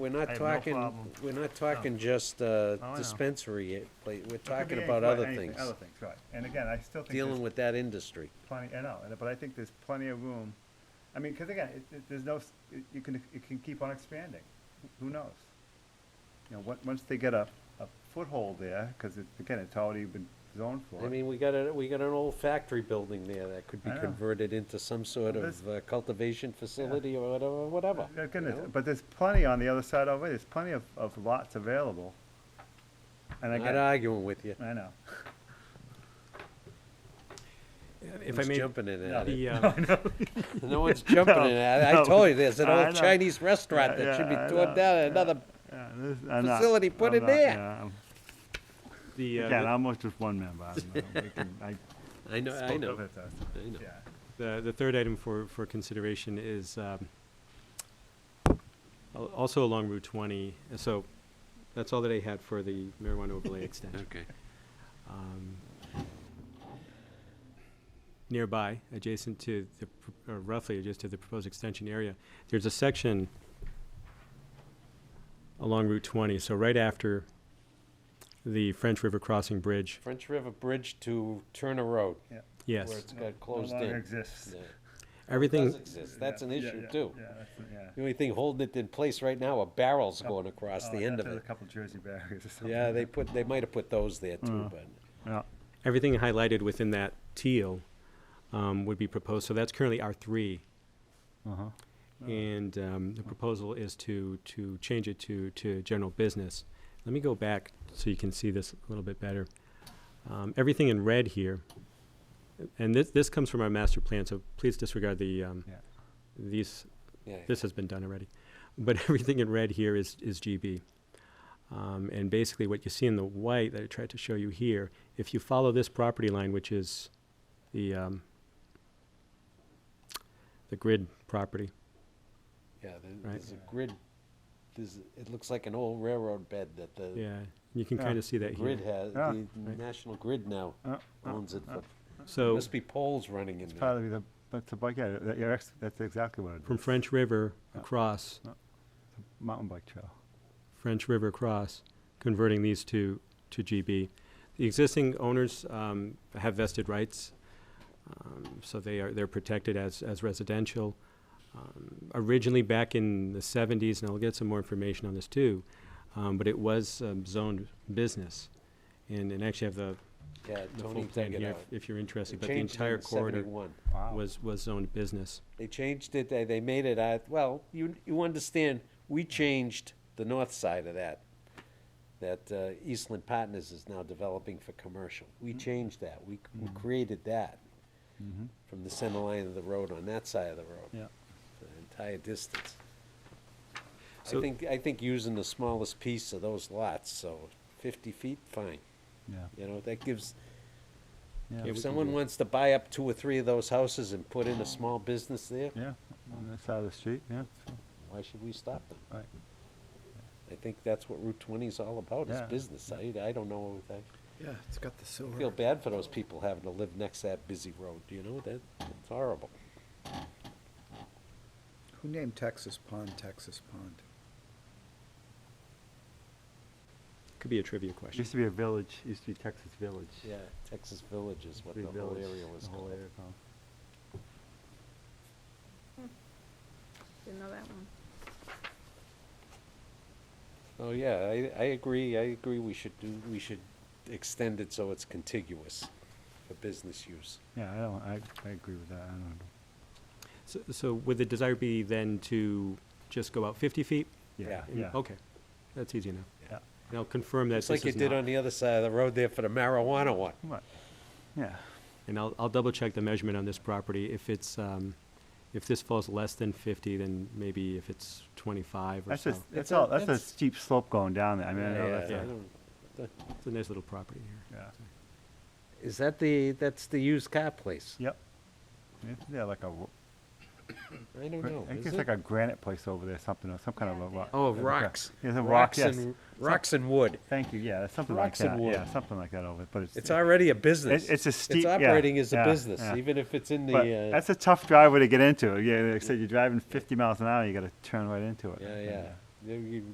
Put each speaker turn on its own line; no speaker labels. We're not
I have no
talking,
problem. Oh,
we're not talking just uh,
I know.
dispensary, eh, pla- we're
It could
talking
be
about
any-
other
anything-
things,
Other things, right. And again, I still think
dealing
there's
with that industry.
plenty, I know, and- but I think there's plenty of room. I mean, because again, it, it, there's no, s- it- you can, it can keep on expanding. Who knows? You know, on- once they get a, a foothold there, because it, again, it's already been zoned for
I
it.
mean, we got a, we got an old factory building there that could be
I know.
converted into some sort
Well, this-
of uh, cultivation facility or whatever, whatever.
Yeah,
you
Goodness,
know?
but there's plenty on the other side already. There's plenty of, of lots available. And
Not
again,
arguing with you,
I know.
If I
Who's
may,
jumping in at it,
the, uh,
no one's jumping in at it, I
no.
told you, there's an
I
old
know.
Chinese restaurant that should be
Yeah, I know,
torn down, and another,
Yeah, this- I'm not-
Facility, put
I'm
it
not-
there.
yeah, I'm-
the,
Again,
uh,
I'm almost just one member. I don't know. We can- I
I know, I
spoke
know,
of it, uh,
I know.
yeah.
the, the third item for, for consideration is, um, al- also along Route twenty, uh, so that's all that I had for the marijuana overlay extension.
Okay,
Um, Nearby, adjacent to the, pr- or roughly adjacent to the proposed extension area, there's a section along Route twenty, so right after the French River Crossing Bridge,
French River Bridge to Turner Road,
yes.
where it's
No-
got closed
No longer
in.
exists.
Yeah.
Everything.
Does exist, that's
Yeah,
an
yeah,
issue
yeah,
too.
yeah, that's the- yeah.
The only thing holding it in place right now are barrels going across
Oh,
the
I
end
thought
of
there was
it.
A couple Jersey barriers or something.
Yeah, they put, they might have put those there too,
Mm.
but
Yeah,
everything highlighted within that teal um, would be proposed. So that's currently R three,
uh-huh.
and um, the proposal is to to change it to to general business. Let me go back so you can see this a little bit better. Um, everything in red here, and this this comes from our master plan. So please disregard the um,
Yeah.
these.
yeah.
This has been done already, but everything in red here is is GB. Um, and basically, what you see in the white that I tried to show you here, if you follow this property line, which is the, um, the grid property,
Yeah, there-
Right.
there's a grid, there's, it looks like an old railroad bed that the
yeah, you can
Yeah.
kind of see that
grid
here.
has,
Yeah.
the National Grid now
Uh, uh,
owns it. for-
So,
Must be poles running in there.
Probably the, that's the bike, yeah, that- you're ex- that's exactly what it
from
is,
French River across,
mountain bike trail.
French River across, converting these to, to GB. The existing owners um, have vested rights, um, so they are, they're protected as, as residential. Um, Originally, back in the 70s, and I'll get some more information on this too, um, but it was um, zoned business. And, and actually I have the,
Yeah,
the full
Tony
plan
dug it
here
out.
if- if you're
They
interested, but the
changed it
entire
in
corridor
71.
Wow.
was, was zoned business.
They changed it, they, they made it, out well, you, you understand, we changed the north side of that. That uh, Eastland Partners is now developing for commercial.
Mm-hmm.
We changed that, we, c- we created that from the center line of the road on that side of the road.
Yeah.
the entire distance. I
So-
think, I think using the smallest piece of those lots, so fifty feet, fine,
Yeah,
you know, that gives,
yeah,
if someone wants to buy up two or three of those houses and put in a small business there,
yeah, on the side of the street, yeah, sure,
why should we stop them?
right.
I think that's what Route twenty is all about, is
Yeah.
business, I, I don't know, I
Yeah, it's got the silver.
feel bad for those people having to live next to that busy road, you know, that, it's horrible.
Who named Texas Pond, Texas Pond?
Could be a trivia
It
question.
Used to be a village, used to be Texas Village.
Yeah, Texas Village is what
Big
the whole
village,
area was
the whole
called.
area called.
Didn't know that one.
Oh, yeah, I, I agree, I agree, we should do, we should extend it so it's contiguous for business use.
Yeah, I don't, I, I agree with that, I don't,
So, so would the desire be then to just go out 50 feet?
yeah,
And-
yeah.
Mm, Okay, that's easy enough.
Yeah.
And I'll confirm that
It's like
this
you
is
did on
not,
the other side of the road there for the marijuana one.
Right, yeah.
and I'll, I'll double check the measurement on this property. If it's, um, if this falls less than 50, then maybe if it's 25 or
That's
so.
just, that's
a-
all, that's a
that's-
steep slope going down there, I mean, I know that's,
Yeah,
a-
I don't-
It's a nice little property here.
yeah,
Is that the, that's the used car place?
yep. Isn't there like a, ro-
I don't know,
I think
is
it's
it?
like a granite place over there, something, or some kind of a rock.
Oh,
like a-
rocks.
Yeah, the rock, yes.
and- Rocks and wood.
Thank you, yeah, that's something like
Rocks and
that,
wood.
yeah, something like that over, but it's.
It's
it-
already a business.
it's a steep-
It's
yeah,
operating as a
yeah,
business,
yeah.
even if it's in
but
the, uh,
That's a tough driveway to get into, yeah, like I said, you're driving fifty miles an hour, you gotta turn right into it.
yeah, yeah. You- you-